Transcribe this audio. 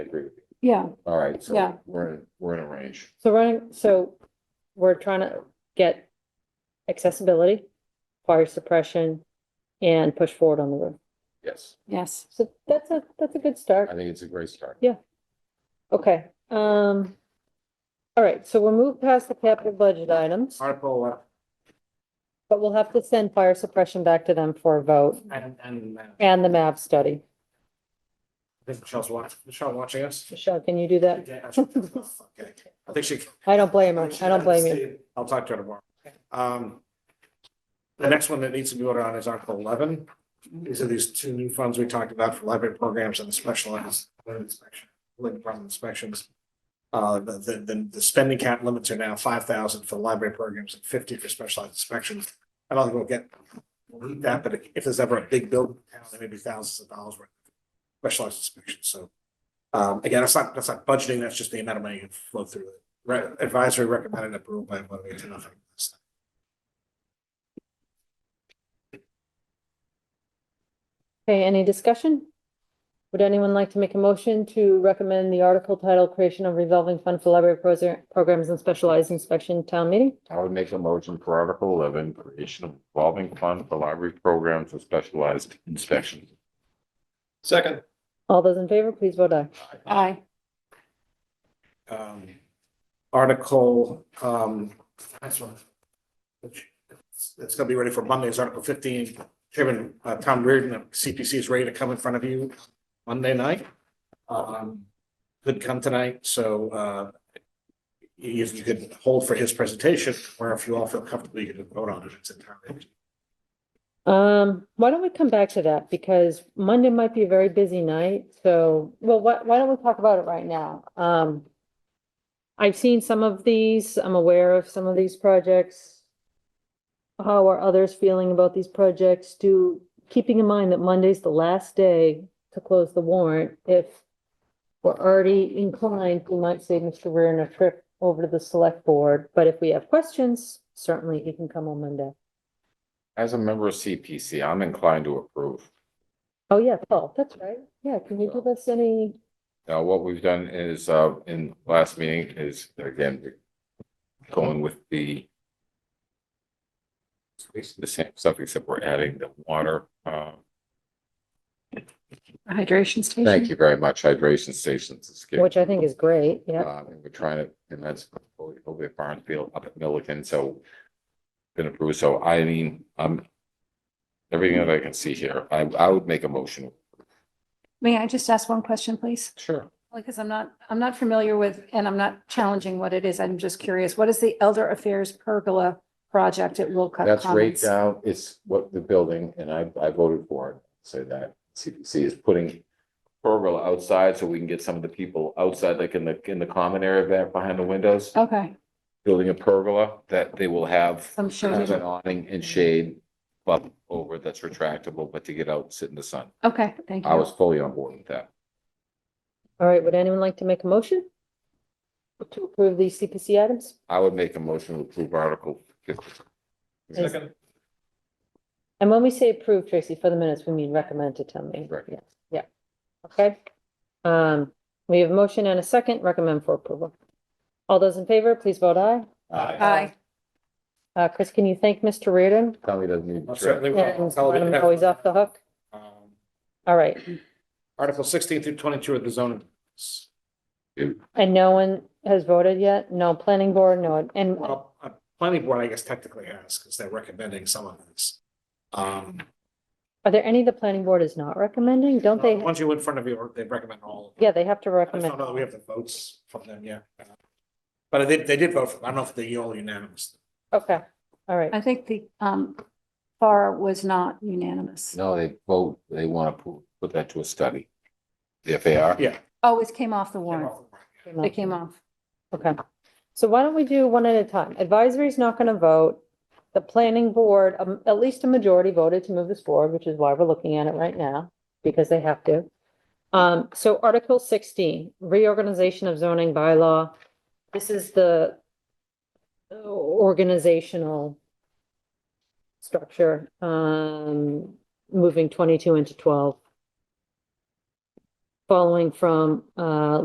I agree with you. Yeah, All right, so Yeah. we're, in we're in a range. So running, so we're trying to get accessibility, fire suppression, and push forward on the roof. Yes, yes. So that's a, that's a good I start. think it's a great start. Okay, um, all right, so we'll move past the capital budget items, Article, uh, but we'll have to send fire suppression back to them for a vote and, and uh, I and the map study. think Michelle's watching, Michelle watching us. Michelle, can you do that? Yeah, okay. I think she. I don't blame her. I don't blame you. I'll talk to her tomorrow. Um, the next one that needs to be voted on is Article eleven. These are these two new funds we talked about for library programs and the specialized inspection, like department inspections. Uh, the, the, the- the spending cap limits are now five thousand for library programs and fifty for specialized inspections. I don't think we'll get we'll need that, but if there's ever a big building, in town, there may be thousands of dollars worth of specialized inspections, so. Um, again, that's not, that's not budgeting, that's just the amount of money you flow through it. Re- advisory recommended approval by one way to nothing. Okay, any discussion? Would anyone like to make a motion to recommend the article title creation of revolving fund for library Proser- programs and specialized inspection town meeting? I would make a motion for Article eleven, creation of revolving fund for library programs and specialized inspection. Second. All those in favor, please vote aye. Aye, Um, article, um, that's one. which- It's it's gonna be ready for Monday, it's article fifteen, Chairman, uh, Tom Reardon of CPC is ready to come in front of you Monday night. Um, could come tonight, so, uh. If you could hold for his presentation, or if you all feel comfortable, you can vote on it, it's entirely. up to you. Um, why don't we come back to that? Because Monday might be a very busy night, so, well, why, why don't we talk about it right now? Um. I've seen some of these, I'm aware of some of these projects. How are others feeling about these projects? Do, keeping in mind that Monday's the last day to close the warrant, if. We're already inclined, we might save Mr. Reardon a trip over to the select board, but if we have questions, certainly he can come on Monday. As a member of CPC, I'm inclined to approve. Oh, yeah, Paul, that's right. Yeah, can you give us any, Now, what we've done is, uh, in last meeting is, again, going with the it's basically the same stuff, except we're adding the water, uh, hydration station. thank you very much, hydration stations. is good. which I think is great, yeah. Um, and we're trying to, and that's over at Barnesfield up at Milliken, so been approved, so I mean, um, everything that I can see here, I, I would make a motion. May I just ask one question, please? Sure. Because I'm not, I'm not familiar with, and I'm not challenging what it is. I'm just curious. What is the Elder Affairs Pergola project at Wilcott That's right uh, Commons? down, it's what the building, and I, I voted for it, so that CPC is putting pergola outside, so we can get some of the people outside, like in the, in the common area there behind the windows, Okay, building a pergola that they will have some kind of shaded. an awning and shade up over that's retractable, but to get out and sit in the sun. Okay, thank I was you. fully on board with that. All right, would anyone like to make a motion? To approve these CPC items? I would make a motion to approve Article fifty. Second. And when we say approve, Tracy, for the minutes, we mean recommend to town meeting. Right. Yeah, yeah. Okay. Um, we have a motion and a second, recommend for approval. All those in favor, please vote aye. Aye, Uh, Chris, can you thank Mr. Reardon? Tommy doesn't need. I'll certainly- And let him know he's off the hook. Um, All right, Article sixteen through twenty-two of the zoning. laws. and no one has voted yet? No planning board, no, and Well, a planning board, I guess technically has, because they're recommending some of this. Um, Are there any the planning board is not recommending? Don't they, once you in front of you, they recommend all. yeah, they have to I just don't recommend. know that we have the votes from them yet. But they, they did vote, for- I don't know if they're all unanimous. Okay, all right. I think the, um, FAR was not unanimous. No, they vote, they want to put, put that to a study. The FAR. Yeah. Oh, it came off the warrant. It came off. Okay, so why don't we do one at a time? Advisory's not gonna vote. The planning board, um, at least a majority voted to move this forward, which is why we're looking at it right now, because they have to. Um, so Article sixteen, reorganization of zoning bylaw. This is the organizational structure, um, moving twenty-two into twelve. following from, uh,